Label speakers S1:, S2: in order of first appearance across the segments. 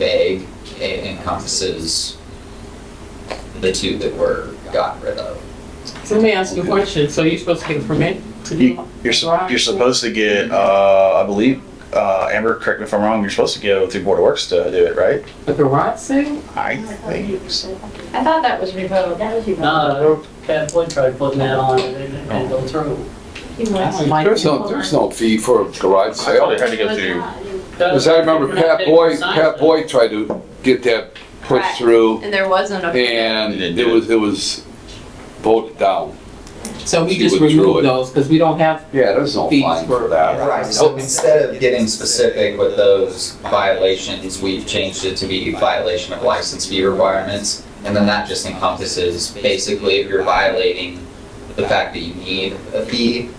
S1: vague, it encompasses the two that were gotten rid of.
S2: So let me ask you a question. So you're supposed to get a permit to do?
S3: You, you're, sup- you're supposed to get, uh, I believe, uh, Amber, correct me if I'm wrong, you're supposed to go through Board of Works to do it, right?
S2: A garage sale?
S3: I think, so.
S4: I thought that was revoked.
S5: That was your.
S6: No, Catholic tried putting that on and it didn't
S3: Oh.
S6: go through.
S5: He was.
S7: There's no, there's no fee for a garage
S3: I thought it
S7: sale.
S3: had to go through,
S7: Because I remember Pat Boyd, Pat Boyd tried to get that pushed
S4: Right.
S7: through
S4: And there wasn't a.
S7: and it was, it was voted down.
S2: So we
S7: She
S2: just
S7: withdrew
S2: remove
S7: it.
S2: those because we don't have,
S7: Yeah, there's no
S2: Fees
S7: fine
S2: for-
S7: for that.
S1: Right, so instead of getting specific with those violations, we've changed it to be violation of license fee requirements. And then that just encompasses, basically, if you're violating the fact that you need a fee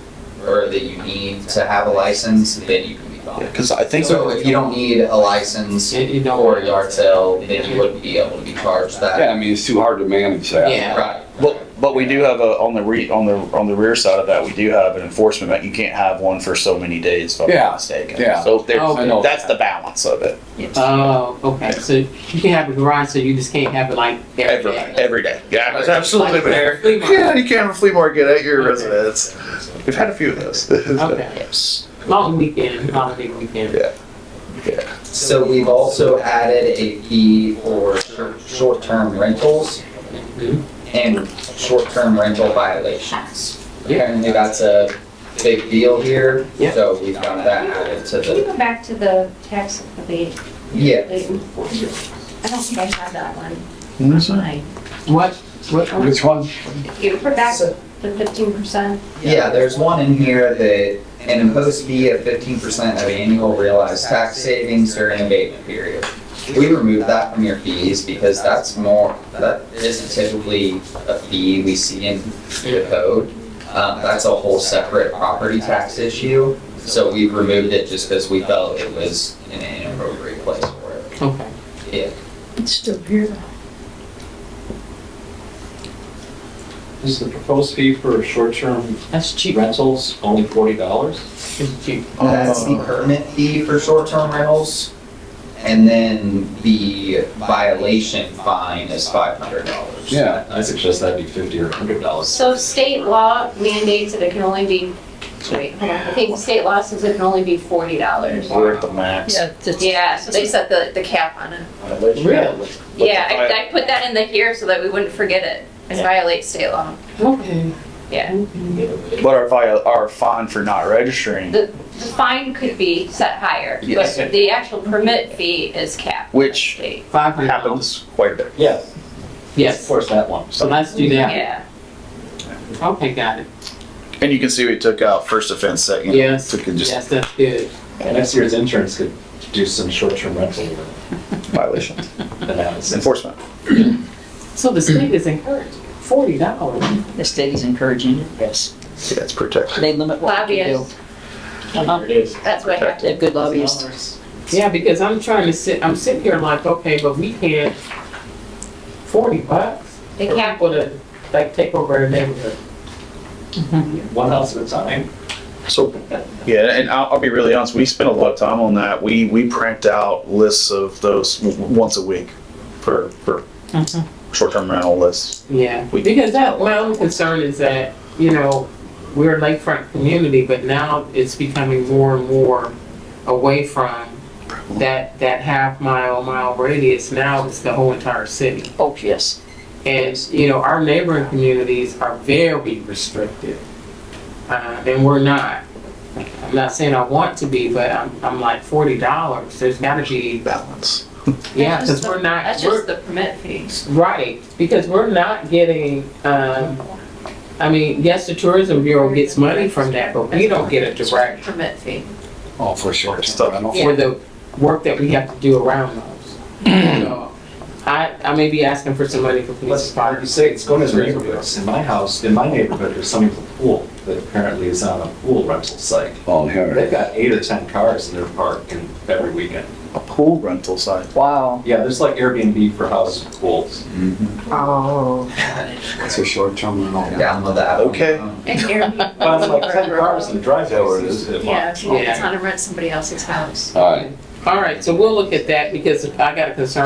S1: or that you need to have a license, then you can be fined.
S3: because I think,
S1: So if you don't need a license
S2: and you don't.
S1: or a yard sale, then you wouldn't be able to be charged that.
S7: Yeah, I mean, it's too hard to manage that.
S2: Yeah.
S1: Right.
S3: but, but we do have a, on the re, on the, on the rear side of that, we do have an enforcement, but you can't have one for so many days, if I'm
S7: Yeah,
S3: not mistaken.
S7: yeah.
S3: So there's,
S2: Okay.
S7: I know
S3: that's
S7: that.
S3: the balance of it,
S2: Oh, okay. So you can have a garage sale, you just can't have it like every
S3: every,
S2: day.
S3: every day. Yeah,
S2: Like-
S3: absolutely
S2: like a flea market.
S3: Yeah, you can have a flea market at your
S2: Okay.
S3: residence. We've had a few of those.
S2: Okay. Long weekend, holiday weekend.
S1: So we've also added a fee for shor- short-term rentals
S2: Mhm.
S1: and short-term rental violations. Apparently that's a big deal here,
S2: Yeah.
S1: so we've got that added to
S5: Can you
S1: the,
S5: go back to the tax abate?
S1: yeah.
S5: I don't think I have that one. Fine.
S2: What, what,
S7: Which one?
S5: You put back
S1: So-
S5: the fifteen percent?
S1: Yeah, there's one in here that an imposed fee of fifteen percent of annual realized tax savings during abatement period. We removed that from your fees because that's more, that isn't typically a fee we see in the code. Um, that's a whole separate property tax issue, so we removed it just because we felt it was an inappropriate place for it.
S2: okay.
S1: Yeah.
S4: It's still here.
S6: Is the proposed fee for short-term
S2: That's cheap.
S6: rentals only forty dollars?
S2: It's cheap.
S4: Oh,
S1: That's the permit fee for short-term rentals. And then the violation fine is five hundred dollars.
S7: Yeah,
S6: I suggest that'd be fifty or a hundred dollars.
S5: So state law mandates that it can only be, wait, hold on. I think state law says it can only be forty dollars.
S3: We're at the max.
S4: Yeah, it's-
S5: Yeah, so they set the, the cap on it.
S2: Really?
S5: Yeah, I, I put that in the here so that we wouldn't forget it. It violates state law.
S2: Okay.
S5: Yeah.
S3: But our vi- our fine for not registering,
S5: The fine could be set higher,
S3: Yes.
S5: but the actual permit fee is capped.
S3: which
S5: State.
S2: Five hundred.
S3: happens quite a bit.
S6: Yeah.
S2: Yes,
S6: Of course, that one.
S2: so let's do that.
S5: Yeah.
S2: Okay, got it.
S3: And you can see we took out first offense, second.
S2: Yes,
S3: So we can just
S2: yes, that's good.
S6: Next year's interns could do some short-term rental
S3: violation,
S6: analysis.
S3: enforcement.
S2: So the state is encouraged, forty dollars.
S4: The state is encouraging it, yes.
S3: Yeah, it's protected.
S4: They limit what you can do.
S5: Lobbyists,
S6: It is.
S2: Uh-huh.
S5: that's what happened.
S4: They have good lobbyists.
S2: Yeah, because I'm trying to sit, I'm sitting here like, okay, but we can't, forty bucks?
S5: They
S2: for
S5: cap,
S2: people to, like, take over a neighborhood.
S6: One house at a time.
S3: So, yeah, and I'll, I'll be really honest, we spent a lot of time on that. We, we print out lists of those w- w- once a week for, for
S2: Mhm.
S3: short-term rental lists.
S2: Yeah,
S3: We-
S2: because that, my only concern is that, you know, we're a lakefront community, but now it's becoming more and more away from that, that half mile, mile radius, now it's the whole entire city.
S4: Oh, yes.
S2: And, you know, our neighboring communities are very restrictive. Uh, and we're not. I'm not saying I want to be, but I'm, I'm like forty dollars, there's gotta be,
S3: Balance.
S2: yeah,
S5: That's just
S2: cause we're
S5: the-
S2: not,
S5: that's
S2: we're,
S5: just the permit fee.
S2: right, because we're not getting, um, I mean, yes, the tourism bureau gets money from that, but we don't get a direct
S5: Permit fee.
S7: oh, for sure.
S3: It's tough.
S2: for the work that we have to do around those. So, I, I may be asking for some money for police
S6: Let's,
S2: department.
S6: you say, it's going to neighborhoods. In my house, in my neighborhood, there's something with a pool that apparently is on a pool rental site.
S7: Oh, here.
S6: They've got eight or 10 cars in their park and every weekend.
S3: A pool rental site.
S4: Wow.
S6: Yeah, there's like Airbnb for houses and pools.
S4: Oh.
S7: It's a short-term rental.
S1: Download the app.
S3: Okay.
S5: And Airbnb.
S6: Well, it's like 10 cars in the driveway.
S7: Is that what it is?
S6: It's a lot.
S5: Yeah, if you
S2: Yeah.
S5: want to rent somebody else's house.
S7: All right,
S2: All right, so we'll look at that because I got a concern